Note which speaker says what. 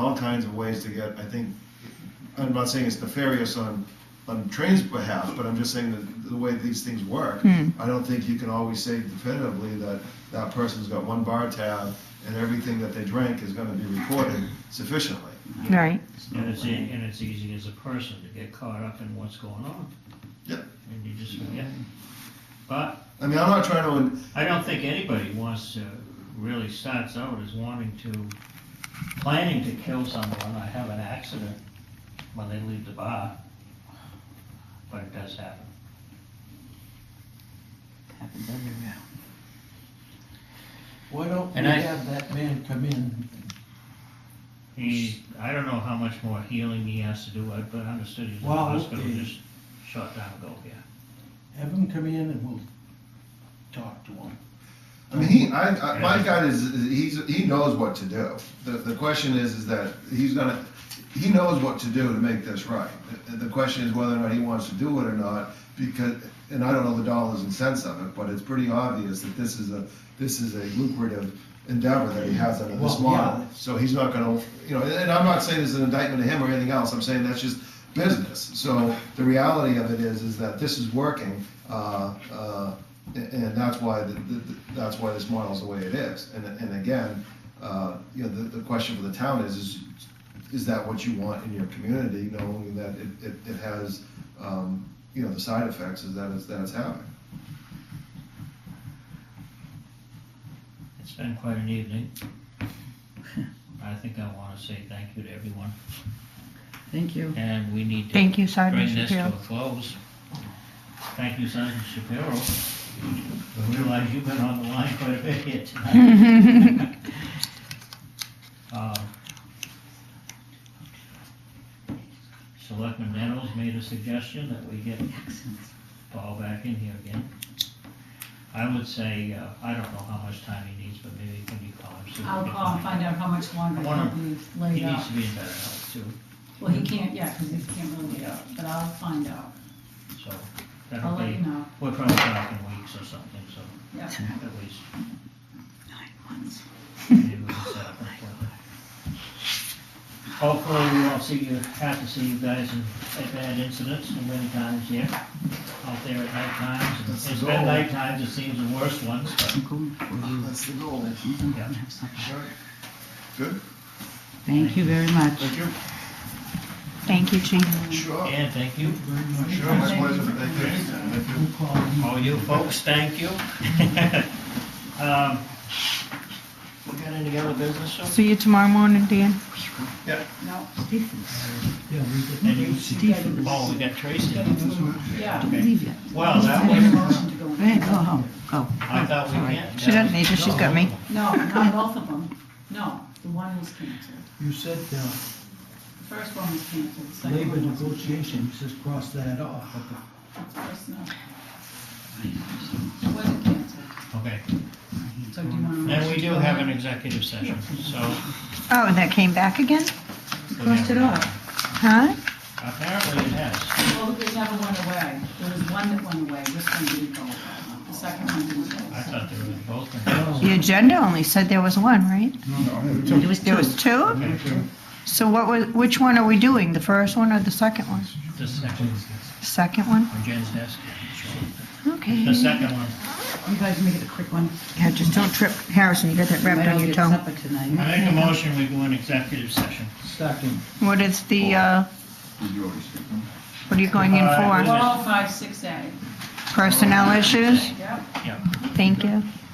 Speaker 1: all kinds of ways to get, I think, I'm not saying it's nefarious on, on train's behalf, but I'm just saying that the way these things work, I don't think you can always say definitively that that person's got one bar tab and everything that they drank is gonna be recorded sufficiently.
Speaker 2: Right.
Speaker 3: And it's, e- and it's easy as a person to get caught up in what's going on.
Speaker 1: Yep.
Speaker 3: And you just forget. But
Speaker 1: I mean, I'm not trying to,
Speaker 3: I don't think anybody wants to, really starts out as wanting to, planning to kill someone or have an accident when they leave the bar. But it does happen.
Speaker 4: Happens everywhere. Why don't we
Speaker 3: And I-
Speaker 4: have that man come in?
Speaker 3: He, I don't know how much more healing he has to do, I- but I understood he was in the
Speaker 4: Well,
Speaker 3: hospital
Speaker 4: okay.
Speaker 3: just short time ago, yeah.
Speaker 4: Have him come in and we'll talk to him.
Speaker 1: I mean, he, I, I, my guy is, is- he's, he knows what to do. The, the question is, is that he's gonna, he knows what to do to make this right. The, the question is whether or not he wants to do it or not, because, and I don't know the dollars and cents of it, but it's pretty obvious that this is a, this is a lucrative endeavor that he has under this
Speaker 4: Well, yeah.
Speaker 1: model. So he's not gonna, you know, and I'm not saying it's an indictment of him or anything else, I'm saying that's just business. So the reality of it is, is that this is working, uh, uh, a- and that's why, the- the- that's why this model's the way it is. And, and again, uh, you know, the, the question for the town is, is, is that what you want in your community, knowing that it, it, it has, um, you know, the side effects is that it's, that it's having?
Speaker 3: It's been quite an evening. I think I want to say thank you to everyone,
Speaker 5: Thank you.
Speaker 3: and we need to
Speaker 2: Thank you, Sergeant
Speaker 3: bring this to a
Speaker 2: Shapiro.
Speaker 3: close. Thank you, Sergeant Shapiro. I realize you've been on the line quite a bit here tonight. Um, Selectman Nettles made a suggestion that we get Paul back in here again. I would say, uh, I don't know how much time he needs, but maybe can you call him? see if
Speaker 5: I'll
Speaker 3: he
Speaker 5: call
Speaker 3: can-
Speaker 5: and find out how much longer
Speaker 3: I wanna-
Speaker 5: he's
Speaker 3: He
Speaker 5: laid
Speaker 3: needs
Speaker 5: up.
Speaker 3: to be in better health too,
Speaker 5: Well, he can't, yeah, because he can't really get up, but I'll find out.
Speaker 3: so
Speaker 5: I'll
Speaker 3: that'll
Speaker 5: let you
Speaker 3: be,
Speaker 5: know.
Speaker 3: we're probably talking weeks or something, so
Speaker 5: Yeah.
Speaker 3: at least
Speaker 5: Nine months.
Speaker 3: maybe we can set up an appointment. Hopefully, we won't see you, have to see you guys in, at bad incidents and many times here, out there at night times. and
Speaker 1: That's the
Speaker 3: It's been
Speaker 1: goal.
Speaker 3: night times, it seems the worst ones, but
Speaker 5: I'm going for you.
Speaker 1: That's the goal.
Speaker 5: I'm
Speaker 3: gonna
Speaker 5: have some.
Speaker 1: Good,
Speaker 5: Thank you very much.
Speaker 1: thank you.
Speaker 2: Thank you, Chief.
Speaker 1: Sure,
Speaker 3: And thank you.
Speaker 1: sure, my pleasure, thank you. Thank you.
Speaker 3: All you folks, thank you. Um, We got any other business, sir?
Speaker 2: See you tomorrow morning, Dan.
Speaker 5: No,
Speaker 3: And you, oh, we got Tracy.
Speaker 5: yeah.
Speaker 6: Leave yet.
Speaker 3: Well, that
Speaker 5: I need a
Speaker 3: was,
Speaker 5: motion to go
Speaker 6: Go ahead,
Speaker 5: in.
Speaker 6: go home, go.
Speaker 3: I thought we
Speaker 6: All right.
Speaker 3: can't.
Speaker 2: She doesn't need to, she's got me.
Speaker 5: No, not both of them. No, the one was canceled.
Speaker 4: You said, uh,
Speaker 5: The first one was canceled, the second
Speaker 4: labor
Speaker 5: one was
Speaker 4: negotiation, you just cross that off, but the
Speaker 5: personal. It wasn't canceled,
Speaker 3: Okay,
Speaker 5: so do you want to?
Speaker 3: and we do have an executive session, so.
Speaker 2: Oh, and that came back again?
Speaker 5: Crossed it off.
Speaker 2: Huh?
Speaker 3: Apparently it has.
Speaker 5: Well, it never went away. There was one that went away, this one didn't go away. The second one didn't go
Speaker 3: I
Speaker 5: away.
Speaker 3: thought they were both. in there.
Speaker 2: The agenda only said there was one, right?
Speaker 6: It was
Speaker 2: There was two?
Speaker 3: Okay,
Speaker 2: So what was, which one are we doing? The first one or the second one?
Speaker 3: The second,
Speaker 2: Second one?
Speaker 3: on Jen's desk.
Speaker 2: Okay.
Speaker 3: The second one.
Speaker 6: You guys make it a quick one.
Speaker 2: Yeah, just don't trip. Harrison, you got that wrapped
Speaker 6: Might
Speaker 2: on
Speaker 6: all
Speaker 2: your
Speaker 6: get
Speaker 2: tongue.
Speaker 6: supper tonight.
Speaker 3: I make a motion, we go in executive session.
Speaker 4: second.
Speaker 2: What is the, uh, what are you going in
Speaker 3: Uh,
Speaker 2: for?
Speaker 5: Four oh five six A,
Speaker 2: Personnel issues?
Speaker 5: yep.
Speaker 3: Yeah.
Speaker 2: Thank you.